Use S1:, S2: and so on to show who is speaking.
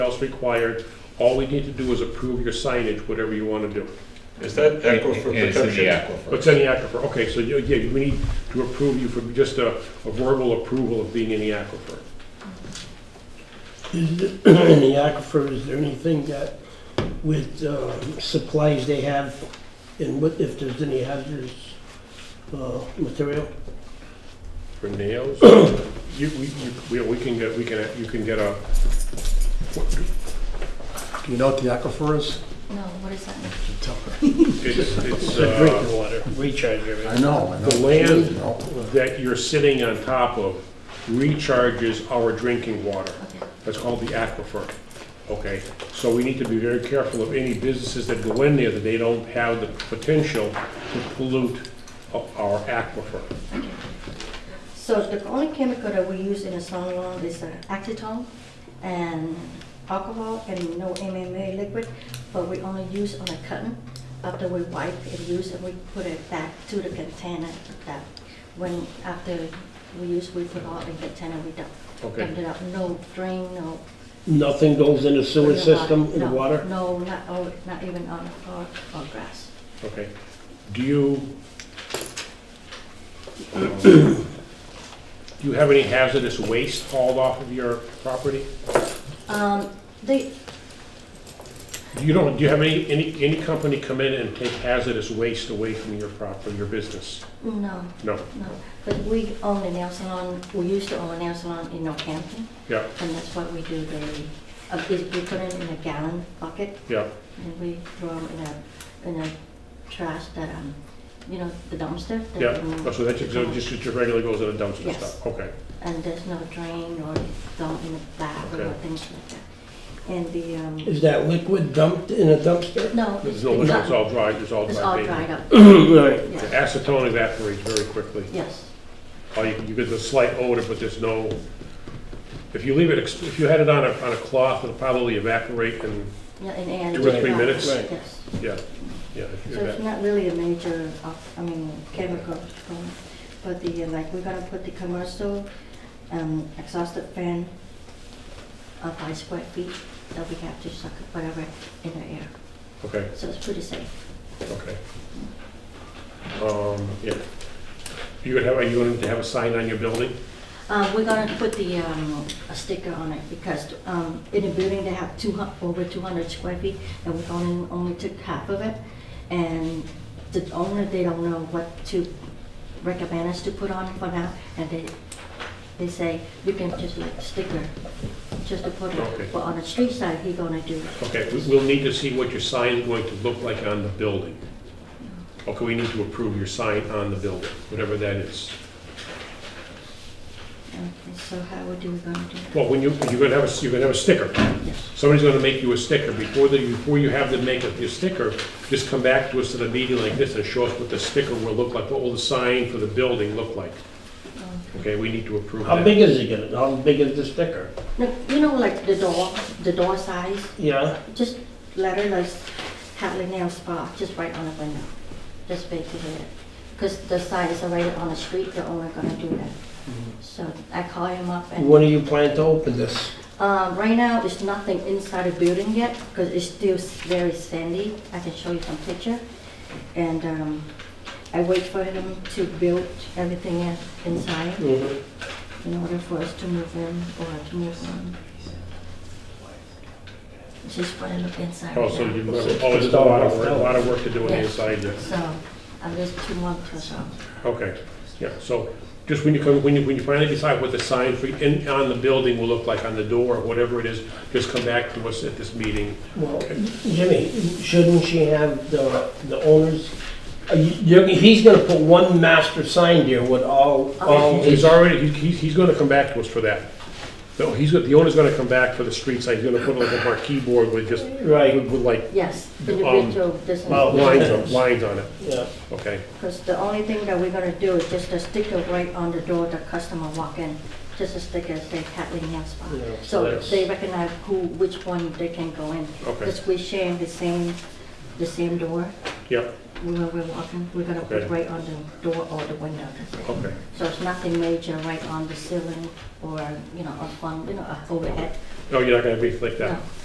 S1: else required. All we need to do is approve your signage, whatever you want to do.
S2: Is that aquifer
S3: And it's in the
S2: protection?
S3: aquifer.
S1: What's in the aquifer? Okay, so you- yeah, we need to approve you for just a a verbal approval of being in the aquifer.
S4: Is it- In the aquifer, is there anything that with um, supplies they have and what, if there's any hazardous uh, material?
S1: For nails? You, we, you- we, we can get, we can, you can get a,
S5: Do you know what the aquifer is?
S6: No, what is that?
S1: it's, it's,
S4: It's a drinking
S1: uh,
S4: water, recharge
S5: I
S4: area.
S5: know, I know.
S1: The land-
S5: You know,
S1: that you're sitting on top of recharges our drinking water.
S6: Okay.
S1: That's called the aquifer, okay? So we need to be very careful of any businesses that go in there that they don't have the potential to pollute o- our aquifer.
S6: So the only chemical that we use in a song lawn is uh, acetone and alcohol and no MMA liquid, but we only use on a cotton. After we wipe and use, and we put it back to the container that when, after we use, we put all in container, we don't.
S1: Okay.
S6: dump it out. No drain, no.
S4: Nothing goes in the sewer system, in the
S6: No,
S4: water?
S6: No, not, all- not even on, or, or grass.
S1: Okay. Do you, um, do you have any hazardous waste hauled off of your property?
S6: Um, they,
S1: Do you don't, do you have any, any, any company come in and take hazardous waste away from your property, your business?
S6: no,
S1: No,
S6: No, but we own a nail salon, we used to own a nail salon in Northampton,
S1: yeah,
S6: and that's what we do, the, uh, we we put it in a gallon bucket,
S1: yeah,
S6: and we throw them in a, in a trash that, um, you know, the dumpster. that
S1: yeah.
S6: we-
S1: Oh, So that's just, so just just regularly goes in a dumpster
S6: Yes.
S1: stuff? Okay,
S6: And there's no drain or dump in the back or
S1: Okay.
S6: things like that. And the, um,
S4: Is that liquid dumped in a dumpster?
S6: no.
S1: there's no, liquor, it's all dried, it's all
S6: It's all
S1: dried.
S6: dried up,
S4: Right.
S1: The
S6: yes,
S1: Acetone evaporates very quickly.
S6: yes,
S1: Oh, you, you get the slight odor, but there's no, if you leave it, ex- if you had it on a, on a cloth, it'll probably evaporate and,
S6: yeah, and, and.
S1: Two or three
S6: uh,
S1: minutes? Right.
S6: Yes.
S1: yeah, yeah. if you
S6: So it's
S1: eva-
S6: not really a major, op- I mean, chemical, um, but the, uh, like, we're gonna put the commercial um, exhaust fan of five square feet that we have to suck up whatever in the air.
S1: Okay,
S6: So it's pretty safe.
S1: okay. Um, yeah. You gonna have, are you going to have a sign on your building?
S6: Uh, We're gonna put the, um, a sticker on it because um, in a building they have two, hu- over 200 square feet and we only, only took half of it. And the owner, they don't know what to recommend us to put on for now. And they, they say, you can just like sticker, just to put
S1: Okay.
S6: it. But on the street side, he gonna do it.
S1: Okay, we- we'll need to see what your sign is going to look like on the building. Okay, we need to approve your sign on the building, whatever that is.
S6: Okay, so how would you gonna do it?
S1: Well, when you, you're gonna have a, you're gonna have a sticker.
S6: Yes.
S1: Somebody's gonna make you a sticker. Before the, before you have them make up your sticker, just come back to us at a meeting like this and show us what the sticker will look like, what will the sign for the building look like. Okay, we need to approve
S4: How
S1: that.
S4: big is it gonna, how big is the sticker?
S6: No, You know, like the door, the door size?
S4: Yeah,
S6: Just letter those Hadley Nail Spa, just right on the window, just basically it. Because the sign is already on the street, they're only gonna do that. So I call him up
S4: when
S6: and,
S4: do you plan to open this?
S6: um, right now, there's nothing inside the building yet, because it's still s- very sandy. I can show you some picture. And, um, I wait for him to build everything in- inside
S4: Mhm.
S6: in order for us to move in or to move on. Just wanna look inside.
S1: Oh,
S6: right
S1: so
S6: now.
S1: you, oh, there's a lot of, work- a lot of work to do on the
S6: Yeah.
S1: inside there.
S6: So, I'm just two months or so.
S1: Okay, yeah, so just when you come, when you, when you finally decide what the sign for, in, on the building will look like, on the door, or whatever it is, just come back to us at this meeting.
S4: Well, Jimmy, shouldn't she have the, the owners? Are you- you're- He's gonna put one master sign there with all, all
S1: Oh, he's
S4: his,
S1: already, he- he's, he's gonna come back to us for that. No, he's, got- the owner's gonna come back for the street sign, he's gonna put like a marquee board with just,
S4: right,
S1: with with, like
S6: Yes,
S1: The, um,
S6: individual
S4: well,
S6: business,
S4: what-
S1: lines, on- lines on it,
S4: yeah.
S1: okay?
S6: because the only thing that we're gonna do is just a sticker right on the door the customer walk in, just a sticker say Kathleen Nail Spa.
S4: Yeah, so
S6: So
S4: that's-
S6: they recognize who, which one they can go in.
S1: Okay.
S6: Because we sharing the same, the same door
S1: Yep,
S6: where we're walking, we're gonna
S1: Okay.
S6: put right on the door or the window. that's it.
S1: okay,
S6: So it's nothing major right on the ceiling or, you know, up on, you know, up uh, overhead,
S1: Oh, you're not gonna be like that?
S6: No.